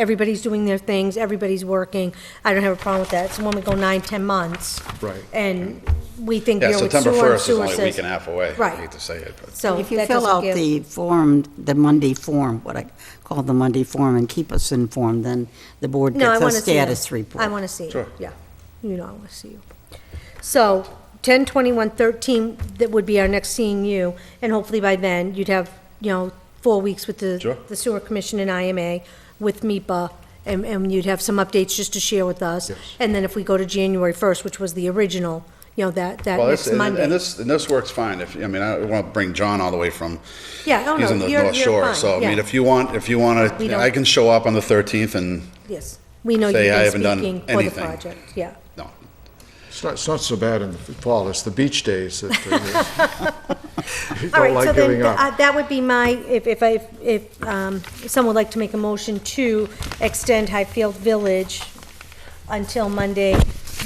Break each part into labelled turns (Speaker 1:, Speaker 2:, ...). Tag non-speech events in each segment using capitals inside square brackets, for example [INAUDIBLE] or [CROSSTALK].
Speaker 1: everybody's doing their things, everybody's working. I don't have a problem with that. So when we go nine, 10 months.
Speaker 2: Right.
Speaker 1: And we think, you
Speaker 3: Yeah,
Speaker 1: know, it's
Speaker 3: September
Speaker 1: sewer and
Speaker 3: 1st is
Speaker 1: sewer
Speaker 3: only a week
Speaker 1: says.
Speaker 3: and a half away. I
Speaker 1: Right.
Speaker 3: hate to say it, but
Speaker 1: So
Speaker 4: If you
Speaker 1: that
Speaker 4: fill
Speaker 1: doesn't
Speaker 4: out
Speaker 1: give-
Speaker 4: the form, the Monday form, what I call the Monday form, and keep us informed, then the board
Speaker 1: No, I
Speaker 4: gets a
Speaker 1: want to see it.
Speaker 4: status report.
Speaker 1: I want to see it.
Speaker 3: Sure.
Speaker 1: Yeah, you know, I want to see you. So, ten twenty-one thirteen, that would be our next seeing you, and hopefully by then, you'd have, you know, four weeks with
Speaker 3: Sure.
Speaker 1: the, the sewer commission and IMA, with MIPA, and, and you'd have some updates just to share with us.
Speaker 3: Yes.
Speaker 1: And then if we go to January first, which was the original, you know, that, that
Speaker 3: Well, this,
Speaker 1: next
Speaker 3: and and
Speaker 1: Monday.
Speaker 3: this, and this works fine if, I mean, I don't want to bring John all the way from,
Speaker 1: Yeah, oh, no,
Speaker 3: he's in the
Speaker 1: you're-
Speaker 3: North
Speaker 1: you're
Speaker 3: Shore,
Speaker 1: fine,
Speaker 3: so, I mean,
Speaker 1: yeah.
Speaker 3: if you want, if you want
Speaker 1: We
Speaker 3: to,
Speaker 1: don't-
Speaker 3: I can show up on the 13th and,
Speaker 1: Yes, we know you've
Speaker 3: Say, I
Speaker 1: been
Speaker 3: haven't done
Speaker 1: speaking for the
Speaker 3: anything.
Speaker 1: project, yeah.
Speaker 3: no,
Speaker 2: It's not, it's not so bad in the fall, it's the beach days that uh,
Speaker 1: [LAUGHS] All
Speaker 2: you
Speaker 1: right,
Speaker 2: don't
Speaker 1: so
Speaker 2: like
Speaker 1: then,
Speaker 2: giving
Speaker 1: th-
Speaker 2: up.
Speaker 1: uh, that would be my, if, if I, if um, someone would like to make a motion to extend Highfield Village until Monday,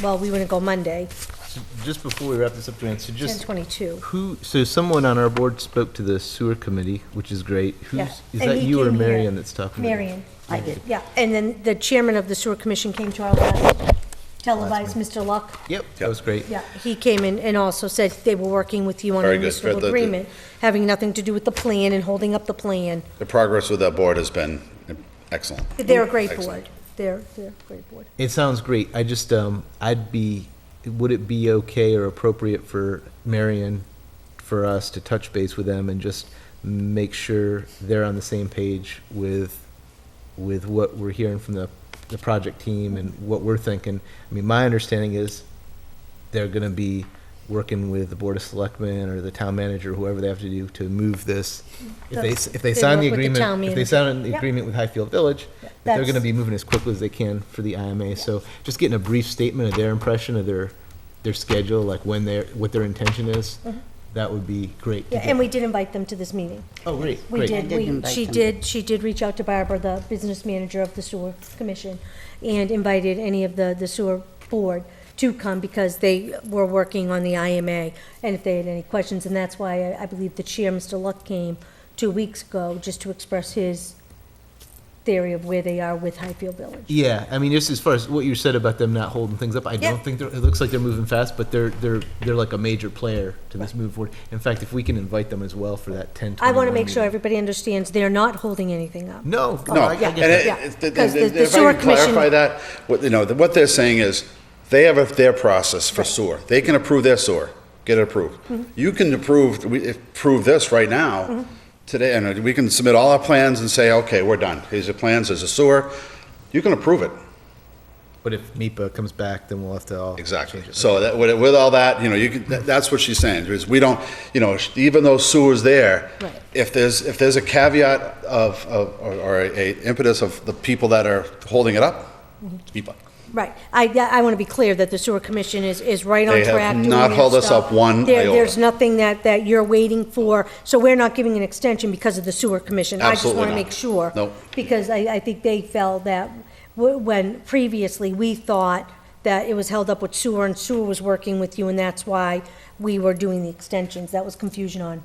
Speaker 1: well, we wouldn't go Monday,
Speaker 5: So Just before we wrap this up, Joanne, so
Speaker 1: ten
Speaker 5: just
Speaker 1: twenty-two.
Speaker 5: who, so someone on our board spoke to the sewer committee, which is great. Who's, is that you or Marion that's talking? to them?
Speaker 1: Marion,
Speaker 4: I did.
Speaker 1: yeah, and then the chairman of the sewer commission came to our last televised, Mr. Luck.
Speaker 5: Yep, that was great.
Speaker 1: Yeah, he came in and also said they were working with you on a
Speaker 3: Very good. Good,
Speaker 1: municipal
Speaker 3: good, good.
Speaker 1: agreement, having nothing to do with the plan and holding up the plan.
Speaker 3: the progress with that board has been excellent.
Speaker 1: They're a great
Speaker 3: Excellent.
Speaker 1: board, they're, they're a great board.
Speaker 5: It sounds great. I just, um, I'd be, would it be okay or appropriate for Marion, for us to touch base with them and just make sure they're on the same page with, with what we're hearing from the, the project team and what we're thinking? I mean, my understanding is they're gonna be working with the Board of Selectmen or the town manager, whoever they have to do to move this. If they, s- if they
Speaker 1: They
Speaker 5: sign the
Speaker 1: work with the town
Speaker 5: agreement, if they
Speaker 1: manager.
Speaker 5: sign an
Speaker 1: Yep.
Speaker 5: agreement with Highfield Village, that they're
Speaker 1: That's-
Speaker 5: gonna be be moving as quickly as they can for the IMA. So just getting a brief statement of their impression of their, their schedule, like when they're, what their intention is, that would be great. to
Speaker 1: Mm-hmm. Yeah,
Speaker 5: get.
Speaker 1: and we did invite them to this meeting.
Speaker 5: Oh, great,
Speaker 1: We
Speaker 5: great.
Speaker 1: did,
Speaker 4: did
Speaker 1: we,
Speaker 4: invite
Speaker 1: she
Speaker 4: them.
Speaker 1: did, she did reach out to Barbara, the business manager of the sewer commission, and invited any of the, the sewer board to come because they were working on the IMA, and if they had any questions, and that's why I, I believe the chair, Mr. Luck, came two weeks ago, just to express his theory of where they are with Highfield Village.
Speaker 5: Yeah, I mean, just as far as what you said about them not holding things up, I
Speaker 1: Yeah.
Speaker 5: don't think they're, it looks like they're moving fast, but they're, they're, they're like a major player to this move forward. In fact, if we can invite them as well for that ten,
Speaker 1: I
Speaker 5: twenty-one.
Speaker 1: wanna make sure
Speaker 5: meeting.
Speaker 1: everybody understands they're not holding anything up.
Speaker 5: No, no,
Speaker 1: Oh,
Speaker 3: No,
Speaker 5: I I
Speaker 3: and it-
Speaker 5: get that.
Speaker 1: Yeah,
Speaker 3: it- th-
Speaker 1: because the-
Speaker 3: th-
Speaker 1: the
Speaker 3: if I
Speaker 1: sewer
Speaker 3: can
Speaker 1: commission-
Speaker 3: clarify that, what, you know, th- what they're saying is, they have a- their process for sewer. They can approve their sewer, get it approved.
Speaker 1: Mm-hmm.
Speaker 3: You can approve, we approve this right now, today, and we can submit all our plans and say, okay, we're done. Here's your plans, there's a sewer. You can approve it,
Speaker 5: But if MIPA comes back, then we'll have to all.
Speaker 3: exactly.
Speaker 5: change it.
Speaker 3: So that, with with all that, you know, you can, that- that's what she's saying, is we don't, you know, sh- even though sewer's there,
Speaker 1: Right.
Speaker 3: if there's, if there's a caveat of, of- or or a impetus of the people that are holding it up,
Speaker 1: Mm-hmm.
Speaker 3: keep up.
Speaker 1: Right. I, I want to be clear that the sewer commission is, is right on
Speaker 3: They have
Speaker 1: track. doing
Speaker 3: not
Speaker 1: their
Speaker 3: held us
Speaker 1: stuff.
Speaker 3: up one
Speaker 1: There-
Speaker 3: iota.
Speaker 1: There's nothing that, that you're waiting for, so we're not giving an extension because of the sewer commission.
Speaker 3: Absolutely
Speaker 1: I just
Speaker 3: not.
Speaker 1: want to make sure.
Speaker 3: Nope.
Speaker 1: Because I, I think they felt that w- when previously we thought that it was held up with sewer and sewer was working with you and that's why we were doing the extensions. That was confusion on,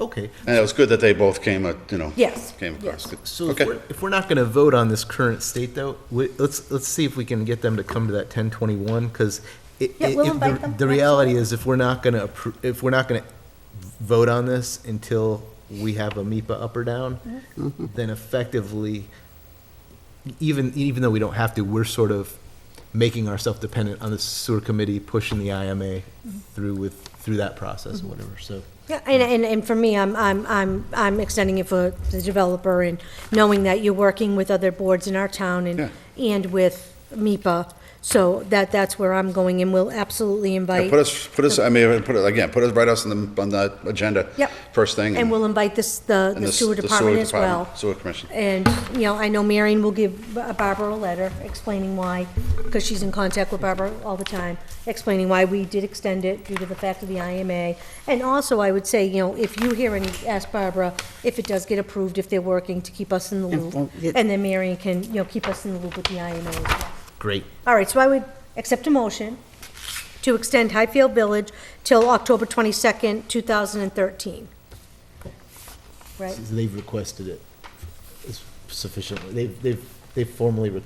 Speaker 5: Okay,
Speaker 3: And it was good that they both came, uh, you know.
Speaker 1: Yes,
Speaker 3: Came across. Good.
Speaker 5: So if
Speaker 3: Okay.
Speaker 5: we're, if we're not gonna vote on this current state though, we, let's, let's see if we can get them to come to that ten twenty-one, cause it,
Speaker 1: Yeah,
Speaker 5: it-
Speaker 1: we'll
Speaker 5: if
Speaker 1: invite
Speaker 5: the-
Speaker 1: them.
Speaker 5: The reality is if we're not gonna appro, if we're not gonna vote on this until we have a MIPA up or down,
Speaker 1: Mm-hmm.
Speaker 5: then effectively, even, even though we don't have to, we're sort of making ourselves dependent on the sewer committee pushing the IMA
Speaker 1: Mm-hmm.
Speaker 5: through with, through that process and whatever, so.
Speaker 1: Yeah, and, and, and for me, I'm, I'm, I'm, I'm extending it for the developer and knowing that you're working with other boards in our town and, and with MIPA. So that, that's where I'm going and we'll absolutely
Speaker 3: Yeah,
Speaker 1: invite,
Speaker 3: Put us, put us, I mean, put it, again, put us right us on the, on the agenda.
Speaker 1: Yep.
Speaker 3: First thing.
Speaker 1: and we'll invite this, the
Speaker 3: and
Speaker 1: the
Speaker 3: s-
Speaker 1: sewer department as
Speaker 3: department,
Speaker 1: well.
Speaker 3: Sewer commission.
Speaker 1: And, you know, I know Marion will give Ba- Barbara a letter explaining why, because she's in contact with Barbara all the time, explaining why we did extend it due to the fact of the IMA. And also, I would say, you know, if you hear any, ask Barbara if it does get approved, if they're working to keep us in the loop.
Speaker 4: Inform- yeah.
Speaker 1: And then Marion can, you know, keep us in the loop with the IMA as well.
Speaker 5: Great.
Speaker 1: All right, so I would accept a motion to extend Highfield Village till October 22nd, 2013. Right?
Speaker 5: They've requested it sufficiently, they've, they've, they formally require